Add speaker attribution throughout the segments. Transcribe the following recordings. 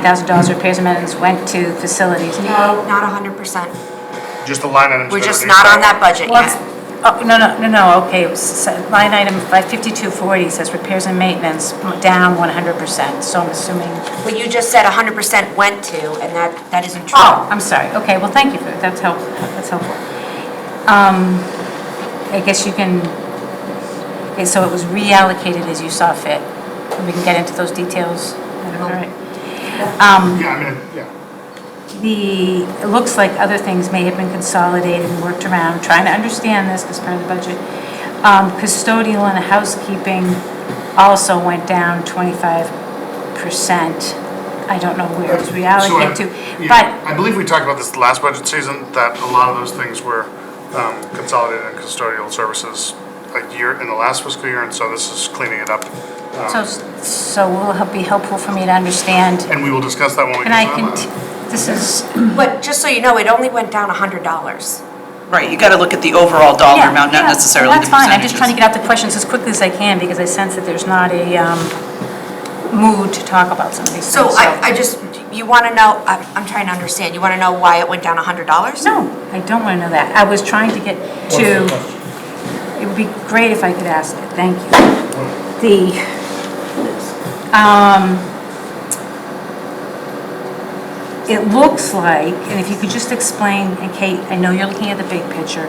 Speaker 1: $9,000 repairs and maintenance went to facilities.
Speaker 2: No, not hundred percent.
Speaker 3: Just the line items.
Speaker 2: We're
Speaker 3: that are
Speaker 2: just
Speaker 3: in
Speaker 2: not on
Speaker 3: there.
Speaker 2: that budget
Speaker 1: What's,
Speaker 2: yet.
Speaker 1: oh, no, no, no, no, okay, it was s- line item 55240 says repairs and maintenance down 100%, so I'm assuming,
Speaker 2: But you just said hundred percent went to, and that, that isn't true.
Speaker 1: oh, I'm sorry, okay, well, thank you for, that's helpful, that's helpful. Um, I guess you can, okay, so it was reallocated as you saw fit, and we can get into those details. All right. Um,
Speaker 3: Yeah, I mean, yeah.
Speaker 1: The, it looks like other things may have been consolidated and worked around, trying to understand this because part of the budget. Um, Custodial and housekeeping also went down 25%. I don't know where it's
Speaker 3: So I-
Speaker 1: reallocated to,
Speaker 3: yeah,
Speaker 1: but,
Speaker 3: I believe we talked about this last budget season, that a lot of those things were um, consolidated in custodial services a year, in the last fiscal year, and so this is cleaning it up. Um,
Speaker 1: so, so will it be helpful for me to understand?
Speaker 3: And we will discuss that when we
Speaker 1: And I
Speaker 3: get to
Speaker 1: can,
Speaker 3: that
Speaker 1: t-
Speaker 3: line.
Speaker 1: this is,
Speaker 2: But just so you know, it only went down hundred dollars.
Speaker 4: Right, you got to look at the overall dollar
Speaker 1: Yeah,
Speaker 4: amount,
Speaker 1: yeah,
Speaker 4: not necessarily the
Speaker 1: That's fine, I'm just trying to
Speaker 4: percentages.
Speaker 1: get out the questions as quickly as I can because I sense that there's not a um, mood to talk about some of these things.
Speaker 2: So I, I just, you wanna know, I'm, I'm trying to understand, you wanna know why it went down hundred dollars?
Speaker 1: No, I don't want to know that. I was trying to get to, it would be great if I could ask it, thank you. The, um, it looks like, and if you could just explain, and Kate, I know you're looking at the big picture,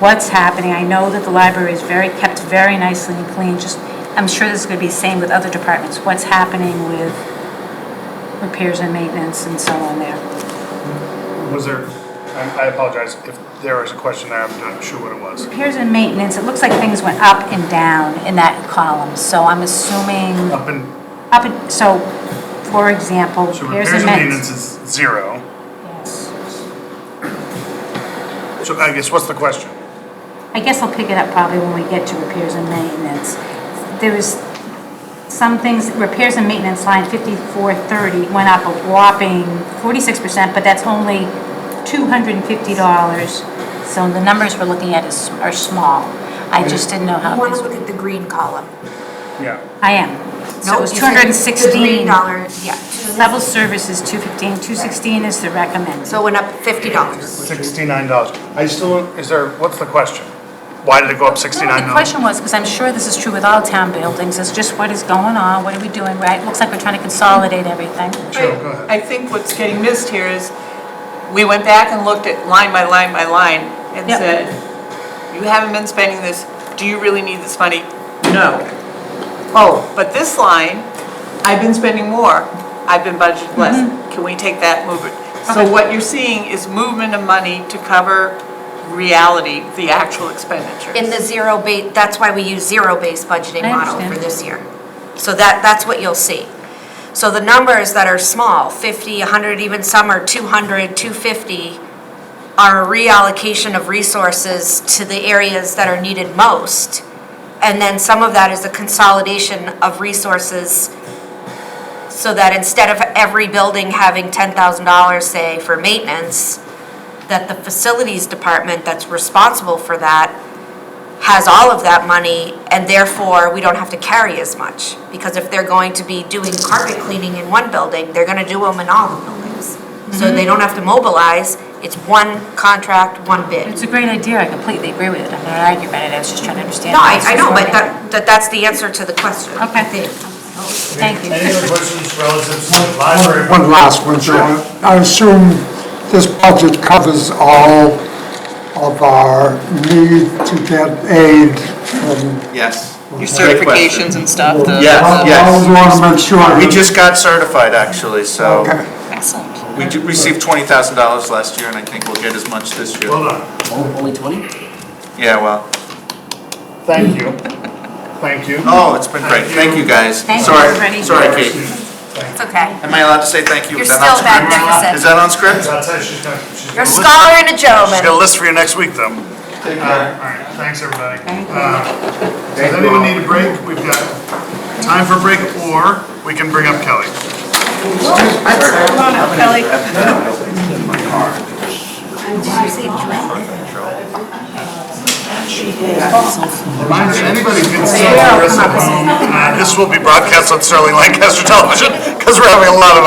Speaker 1: what's happening. I know that the library is very, kept very nicely and clean, just, I'm sure this is going to be the same with other departments. What's happening with repairs and maintenance and so on there?
Speaker 3: Was there, I I apologize if there was a question there, I'm not sure what it was.
Speaker 1: Repairs and maintenance, it looks like things went up and down in that column, so I'm assuming,
Speaker 3: Up in,
Speaker 1: up, and so, for example,
Speaker 3: so
Speaker 1: repairs
Speaker 3: repairs and maintenance
Speaker 1: and
Speaker 3: is zero.
Speaker 1: maintenance.
Speaker 3: So I guess, what's the question?
Speaker 1: I guess I'll pick it up probably when we get to repairs and maintenance. There was some things, repairs and maintenance line 5430 went up a whopping 46%, but that's only $250, so the numbers we're looking at is, are small. I just didn't know
Speaker 2: You
Speaker 1: how,
Speaker 2: wanna
Speaker 1: these-
Speaker 2: look at the green column.
Speaker 3: Yeah.
Speaker 1: I am. So it was
Speaker 2: No, you said The
Speaker 1: 216.
Speaker 2: green dollar, yeah.
Speaker 1: Level service is 215, 216 is the recommend.
Speaker 2: So it went up fifty dollars.
Speaker 3: Sixty-nine dollars. I still, is there, what's the question? Why did it go up
Speaker 1: Well,
Speaker 3: sixty-nine
Speaker 1: The
Speaker 3: dollars?
Speaker 1: question was, because I'm sure this is true with all town buildings, is just what is going on, what are we doing, right? Looks like we're trying to consolidate everything.
Speaker 3: Sure, go ahead.
Speaker 5: I think what's getting missed here is, we went back and looked at line by line by line and
Speaker 1: Yep.
Speaker 5: said, you haven't been spending this, do you really need this money? No. Oh, but this line, I've been spending more, I've been budgeted less,
Speaker 1: Mm-hmm.
Speaker 5: can we take that, move it? So what you're seeing is movement of money to cover reality, the actual expenditures.
Speaker 2: In the zero base, that's why we use zero-based budgeting
Speaker 1: I
Speaker 2: model
Speaker 1: understand.
Speaker 2: for this year. So that, that's what you'll see. So the numbers that are small, 50, 100, even some are 200, 250, are a reallocation of resources to the areas that are needed most. And then some of that is the consolidation of resources so that instead of every building having $10,000, say, for maintenance, that the facilities department that's responsible for that has all of that money, and therefore, we don't have to carry as much. Because if they're going to be doing carpet cleaning in one building, they're gonna do them in all the buildings. So they don't have to mobilize, it's one contract, one bid.
Speaker 1: It's a great idea, I completely agree with it, I'm not arguing about it, I was just trying to understand.
Speaker 2: No,
Speaker 1: how
Speaker 2: I,
Speaker 1: this
Speaker 2: I
Speaker 1: is
Speaker 2: know, but
Speaker 1: working.
Speaker 2: that, that that's the answer to the question.
Speaker 1: Okay.
Speaker 2: I think.
Speaker 1: Thank you.
Speaker 3: Any other questions relative to the library?
Speaker 6: One last one, so I assume this budget covers all of our need to get aid from.
Speaker 7: Yes.
Speaker 4: Your
Speaker 7: Great question.
Speaker 4: certifications and stuff, the.
Speaker 7: Yes,
Speaker 6: I-
Speaker 4: the-
Speaker 7: yes.
Speaker 6: I want to make sure.
Speaker 7: We just got certified, actually, so
Speaker 6: Okay.
Speaker 4: Excellent.
Speaker 7: we ju- received twenty thousand dollars last year, and I think we'll get as much this year.
Speaker 3: Hold on.
Speaker 8: Only 20?
Speaker 7: Yeah, well,
Speaker 3: Thank you. Thank you.
Speaker 7: oh, it's been great, thank you, guys.
Speaker 1: Thank you, everybody.
Speaker 7: Sorry, sorry, Kate.
Speaker 2: It's okay.
Speaker 7: Am I allowed to say thank you?
Speaker 2: You're
Speaker 7: Is that on
Speaker 2: still back
Speaker 7: script?
Speaker 2: deficit.
Speaker 7: Is that on script?
Speaker 3: That's it, she's gonna, she's
Speaker 2: You're a
Speaker 3: gonna list.
Speaker 2: scholar and a
Speaker 3: She's got
Speaker 2: gentleman.
Speaker 3: a list for you next week, though.
Speaker 7: Take
Speaker 3: All right, all right, thanks, everybody. Uh, Does anyone need a break? We've got time for a break, or we can bring up Kelly.
Speaker 5: Come on up, Kelly.
Speaker 3: Reminder that anybody can still hear us at home. Uh, This will be broadcast on Sterling Lancaster Television, because we're having a lot of